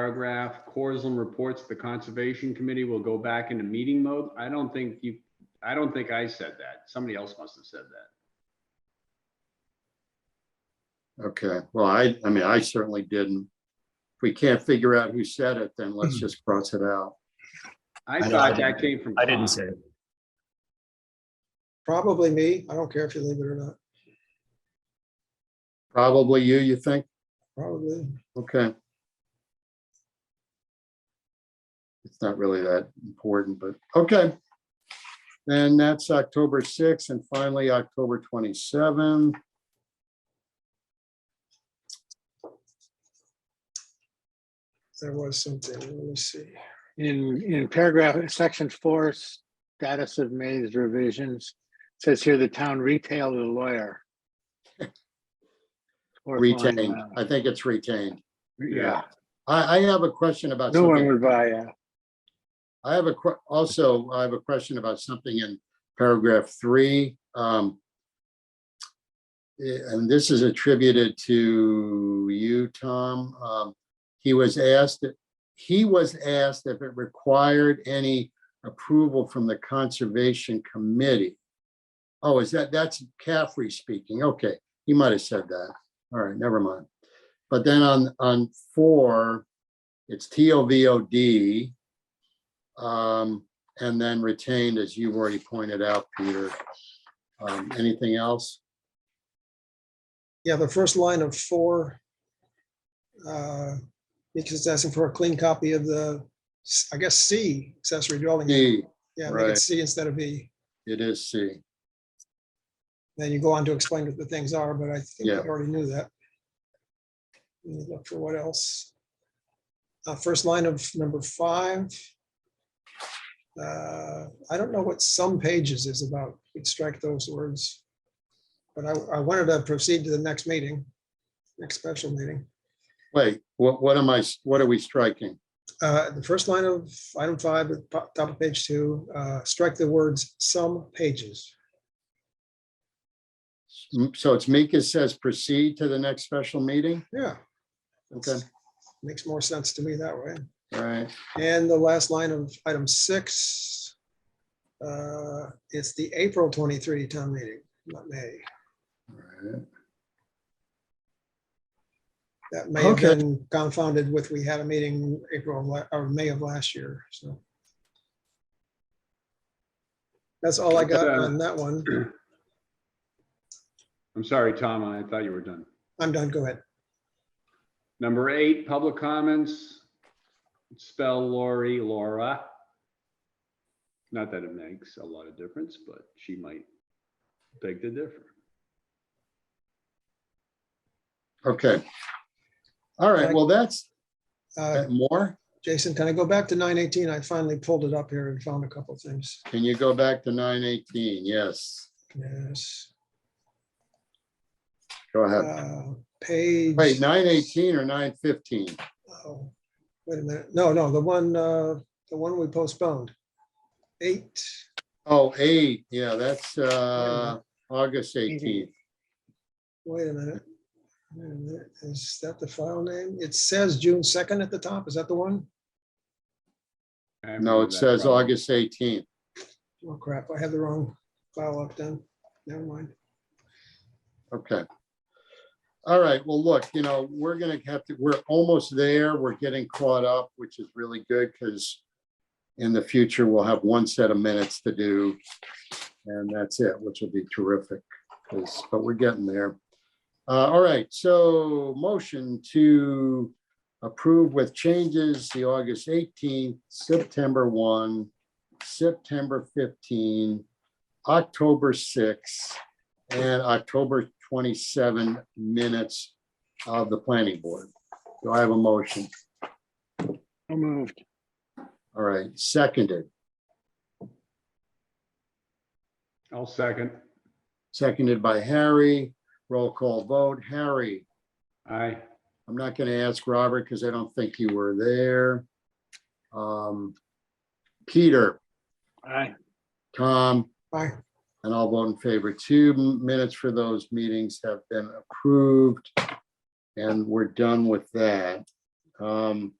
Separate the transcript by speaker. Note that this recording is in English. Speaker 1: paragraph, Corzine reports the Conservation Committee will go back into meeting mode. I don't think you, I don't think I said that. Somebody else must have said that.
Speaker 2: Okay, well, I, I mean, I certainly didn't. If we can't figure out who said it, then let's just cross it out.
Speaker 3: I
Speaker 1: I
Speaker 3: don't-
Speaker 1: thought that came from.
Speaker 3: I didn't
Speaker 1: Tom.
Speaker 3: say it.
Speaker 4: Probably me. I don't care if you leave it or not.
Speaker 2: Probably you, you think?
Speaker 4: Probably.
Speaker 2: Okay. It's not really that important, but, okay. Then that's October sixth and finally October twenty-seven.
Speaker 4: There was something. Let me see.
Speaker 5: In, in paragraph, section four, status of May's revisions, says here the town retailed the lawyer. Fourth line
Speaker 2: Retained.
Speaker 5: down.
Speaker 2: I think it's retained.
Speaker 5: Yeah,
Speaker 2: I, I have a question about.
Speaker 5: no one
Speaker 2: something.
Speaker 5: would buy that.
Speaker 2: I have a que- also, I have a question about something in paragraph three. um, eh, And this is attributed to you, Tom. Um, He was asked, he was asked if it required any approval from the Conservation Committee. Oh, is that, that's Caffrey speaking. Okay, he might have said that. All right, never mind. But then on, on four, it's T O V O D. Um, and then retained, as you've already pointed out, Peter. Um, anything else?
Speaker 4: Yeah, the first line of four. uh, Because it's asking for a clean copy of the, I guess, C accessory dwelling. unit.
Speaker 2: D,
Speaker 4: Yeah, make
Speaker 2: right.
Speaker 4: it C instead of E.
Speaker 2: it is C.
Speaker 4: Then you go on to explain what the things are, but I think I
Speaker 2: Yeah.
Speaker 4: already knew that. Let me Look for what else. Uh, First line of number five. Uh, I don't know what some pages is about. We'd strike those words. But I, I wanted to proceed to the next meeting, next special meeting.
Speaker 2: Wait, what, what am I, s- what are we striking?
Speaker 4: Uh, the first line of item five, at po- top of page two, uh, strike the words some pages.
Speaker 2: Mm, So it's Mika says proceed to the next special meeting?
Speaker 4: Yeah.
Speaker 2: Okay.
Speaker 4: Makes more sense to me that way.
Speaker 2: All right,
Speaker 4: And the last line of item six. uh, It's the April 23 town meeting, not May.
Speaker 2: all right.
Speaker 4: That may have
Speaker 2: Okay.
Speaker 4: been confounded with, we had a meeting April of la- or May of last year, so. That's all I got on that one.
Speaker 1: I'm sorry, Tom, I thought you were done.
Speaker 4: I'm done. Go ahead.
Speaker 1: Number eight, public comments. Spell Lori, Laura. Not that it makes a lot of difference, but she might beg to differ.
Speaker 2: Okay. All right, well, that's
Speaker 4: Uh,
Speaker 2: that more.
Speaker 4: Jason, can I go back to 918? I finally pulled it up here and found a couple of things.
Speaker 2: Can you go back to nine eighteen? Yes,
Speaker 4: Yes.
Speaker 2: go ahead.
Speaker 4: Uh, Page.
Speaker 2: Wait, nine eighteen or nine fifteen?
Speaker 4: Oh, Wait a minute. No, no, the one, uh, the one we postponed. Eight,
Speaker 2: Oh, eight, yeah, that's, uh, August eighteenth.
Speaker 4: wait a minute. Wait a minute. Is that the file name? It says June second at the top. Is that the one?
Speaker 1: I haven't
Speaker 2: No,
Speaker 1: read
Speaker 2: it
Speaker 1: that
Speaker 2: says
Speaker 1: problem.
Speaker 2: August eighteenth.
Speaker 4: Oh crap, I have the wrong file up then. Never mind.
Speaker 2: Okay. All right, well, look, you know, we're gonna have to, we're almost there. We're getting caught up, which is really good because in the future, we'll have one set of minutes to do. And that's it, which will be terrific, 'cause- but we're getting there. Uh, all right, so motion to approve with changes, the August eighteenth, September one, September fifteen, October sixth, and October 27 minutes of the planning board. Do I have a motion?
Speaker 5: I moved.
Speaker 2: All right, seconded,
Speaker 1: I'll second.
Speaker 2: seconded by Harry. Roll call vote. Harry,
Speaker 1: Aye.
Speaker 2: I'm not going to ask Robert because I don't think you were there. Um, Peter,
Speaker 5: Aye.
Speaker 2: Tom,
Speaker 4: Bye.
Speaker 2: And I'll vote in favor. Two minutes for those meetings have been approved. And we're done with that. Um,